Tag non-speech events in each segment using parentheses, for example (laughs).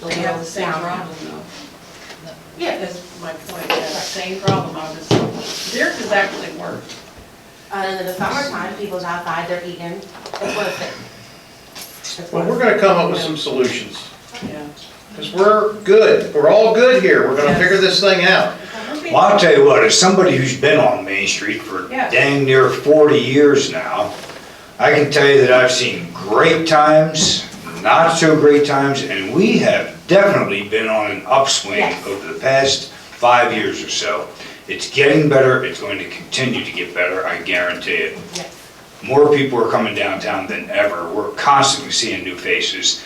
They have the same Sound. problem though. Yeah, that's my point, they have the same problem, I was, theirs is actually worse. Uh, in the summertime, people's outside, they're eating, it's worth it. It's Well, worth we're it. gonna come up with some solutions, Yeah. because we're good, we're all good here, we're gonna figure this thing out. Well, I'll tell you what, as somebody who's been on Main Street for Yeah. dang near 40 years now, I can tell you that I've seen great times, not so great times, and we have definitely been on an upswing Yes. over the past five years or so. It's getting better, it's going to continue to get better, I guarantee it. Yes. More people are coming downtown than ever. We're constantly seeing new faces.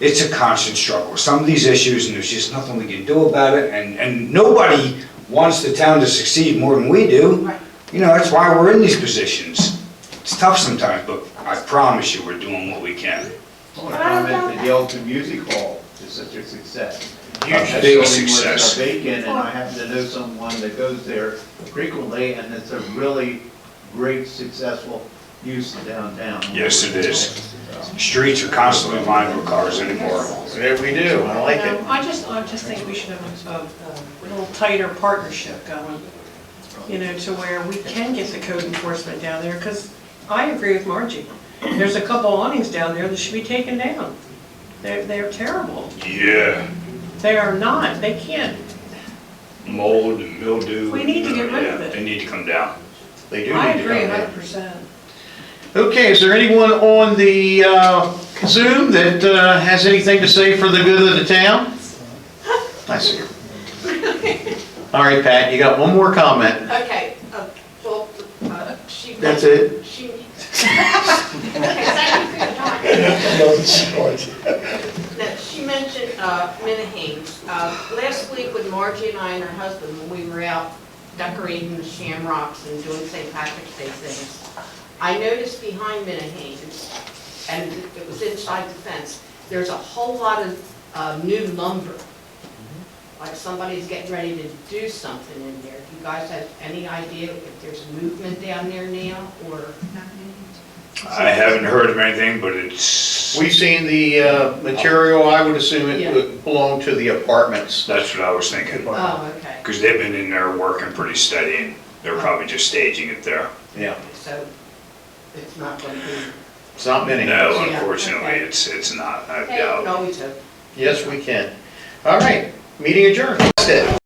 It's a constant struggle. Some of these issues, and there's just nothing we can do about it, and, and nobody wants the town to succeed more than we do. Right. You know, that's why we're in these positions. It's tough sometimes, but I promise you, we're doing what we can. I want to comment that the Elton Music Hall is such a success. A That building big was success. a Vacant, and I happen to know someone that goes there frequently, and it's a really great, successful use of downtown. Yes, it is. Streets are constantly lined with cars anymore. Yeah, we do, I like Um, I just, I just think we should have a, a little tighter partnership going, you know, to where we can get the code enforcement down there, because I agree with Margie. There's a couple awnings down there that should be taken down. They're, they're terrible. Yeah, They are not, they can't, mold and mildew. We need to get rid of Yeah, it. They need to come down. They do I need to agree come down. hundred percent. Okay, is there anyone on the uh, Zoom that uh, has anything to say for the good of the town? (laughs) I see her. All right, Pat, you got one more comment. Okay, uh, well, uh, she. That's it? She. (laughs) Okay, thank you for your time. (laughs) Now, she mentioned uh, Minnehanes. Uh, Last week when Margie and I and her husband, when we were out decorating the shamrocks and doing St. Patrick's Day things, I noticed behind Minnehanes, and it was inside the fence, there's a whole lot of uh, new lumber. Like somebody's getting ready to do something in there. Do you guys have any idea if there's movement down there now or? I haven't heard of anything, but it's, We've seen the uh, material, I would assume it would belong to the apartments. that's what I was thinking. Oh, okay. Because they've been in there working pretty steady, and they're probably just staging it there. Yeah, So it's not going to be. it's not many. No, Yeah, unfortunately, okay. it's, it's not, I Hey, doubt. no, it's okay. Yes, we can. All right, meeting adjourned. That's it.